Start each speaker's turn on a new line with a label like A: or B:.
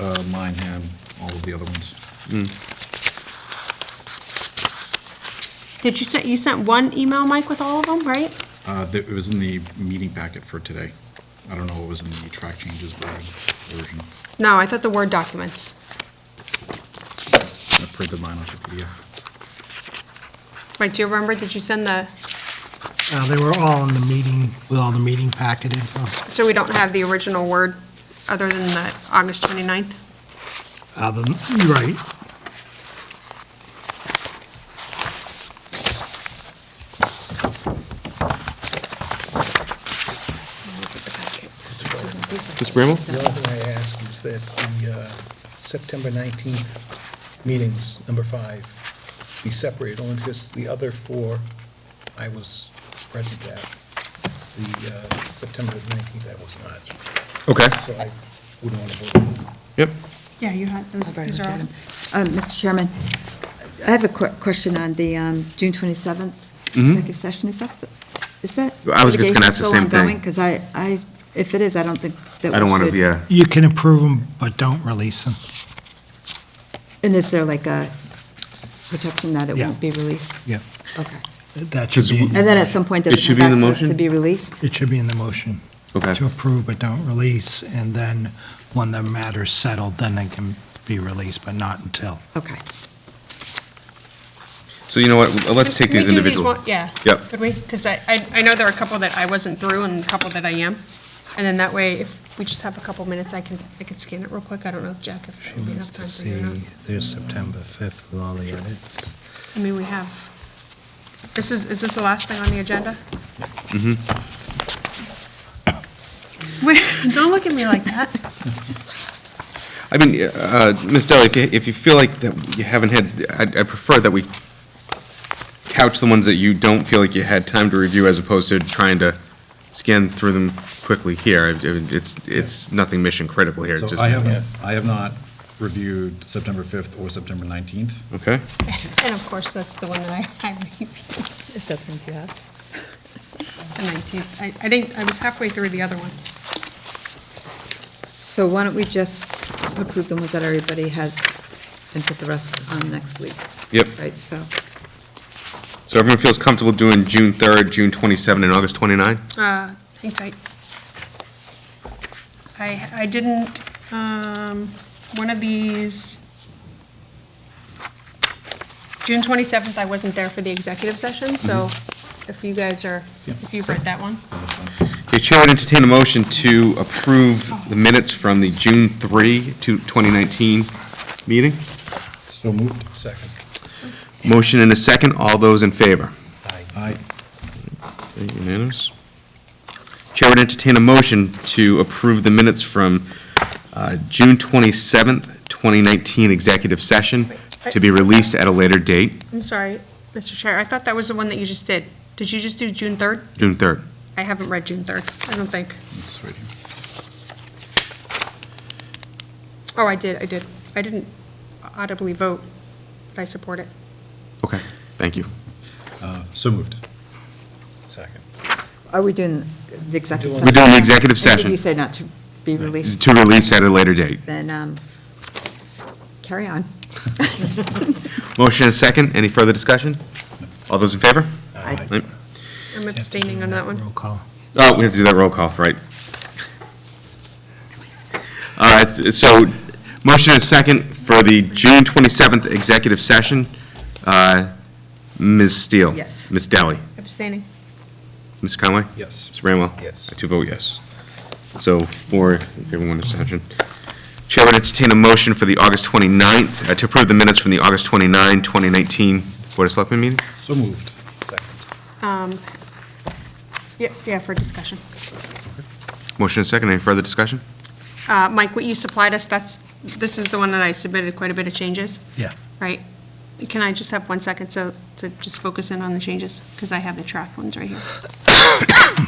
A: uh, mine had all of the other ones.
B: Did you send, you sent one email, Mike, with all of them, right?
A: Uh, th- It was in the meeting packet for today. I don't know what was in the track changes version. version.
B: No, I thought the Word documents.
A: I printed mine off the PDF.
B: Mike, do you remember, did you send the,
C: Uh, They were all in the meeting, with all the meeting packet info.
B: so we don't have the original Word other than the August 29th?
C: Uh, the- You're right.
D: Mr. Bramble?
E: The only thing I ask is that the uh, September 19th meetings, number five, be separated, only because the other four I was present at. The uh, September 19th, I was not,
D: Okay.
E: so I wouldn't want to vote.
D: Yep.
B: Yeah, you had, those,
F: I've already
B: these are
F: got
B: all.
F: them. Uh, Mr. Chairman, I have a quick question on the um, June 27th executive session. Is that, is that?
D: Mm-hmm. I was just gonna ask the same thing.
F: Because I, I, if it is, I don't think that we
D: I don't want to,
F: should-
D: yeah.
C: You can approve them, but don't release them.
F: And is there like a protection that it
C: Yeah.
F: won't be released?
C: Yeah.
F: Okay.
C: That should be,
F: And then at some point, does
D: Mm-hmm. It should
F: it
D: be in
F: come
D: the
F: back to us to
D: motion?
F: be released?
C: it should be in the motion.
D: Okay.
C: To approve but don't release, and then when the matter's settled, then they can be released, but not until.
F: Okay.
D: So you know what, let's take
B: Can we
D: these
B: do
D: individually.
B: one- Yeah.
D: Yep.
B: Could we? Because I, I I know there are a couple that I wasn't through and a couple that I am. And then that way, if we just have a couple minutes, I can, I can scan it real quick. I don't know, Jack, if we have time for you or not.
C: there's September 5th with all the edits.
B: I mean, we have, this is, is this the last thing on the agenda? Mm-hmm. Don't look at me like that.
D: I mean, uh, Ms. Deli, if you, if you feel like that you haven't had, I'd- I prefer that we couch the ones that you don't feel like you had time to review as opposed to trying to scan through them quickly here. I- I mean, It's, it's nothing mission critical here.
A: So
D: just-
A: I have, I have not reviewed September 5th or September 19th.
D: Okay.
B: And of course, that's the one that I, I reviewed,
G: Is that things you have?
B: the 19th. I, I think, I was halfway through the other one.
F: So why don't we just approve the ones that everybody has and put the rest on next week?
D: Yep.
F: Right, so,
D: So everyone feels comfortable doing June 3rd, June 27, and August 29?
B: Uh, hang tight. I, I didn't, um, one of these, June 27th, I wasn't there for the executive session, so if you guys are, if you've read that one.
D: The chair would entertain a motion to approve the minutes from the June 3 to 2019 meeting.
A: So moved.
E: Second.
D: Motion and a second. All those in favor?
E: Aye.
A: Aye.
D: Unanimous. Chair would entertain a motion to approve the minutes from uh, June 27th, 2019 executive session to be released at a later date,
B: I'm sorry, Mr. Chair, I thought that was the one that you just did. Did you just do June 3rd?
D: June 3rd.
B: I haven't read June 3rd, I don't think.
A: It's right here.
B: Oh, I did, I did. I didn't audibly vote, but I support it.
D: Okay, thank you.
A: Uh, So moved.
E: Second.
F: are we doing the executive
E: We're
F: session?
D: We're doing the executive
F: And Did
D: session
F: you say not to be released?
D: to release at a later date.
F: then um, carry on.
D: Motion and a second. Any further discussion? All those in favor?
F: Aye.
D: Right.
B: I'm abstaining on that one.
C: Roll call.
D: Oh, we have to do that roll call, right? All right, so motion is second for the June 27th executive session. Uh, Ms. Steele?
F: Yes.
D: Ms. Dally?
B: Abstaining.
D: Ms. Conway?
A: Yes.
D: Ms. Bramwell?
E: Yes.
D: I do vote yes. So for everyone abstention. Chair would entertain a motion for the August 29th, uh, to approve the minutes from the August 29, 2019 Board of Selectmen meeting?
A: So moved.
E: Second.
B: Um, Yeah, yeah, for discussion.
D: Motion is second. Any further discussion?
B: Uh, Mike, what you supplied us, that's, this is the one that I submitted quite a bit of changes,
C: Yeah.
B: right? Can I just have one second so, to just focus in on the changes? Because I have the track ones right here.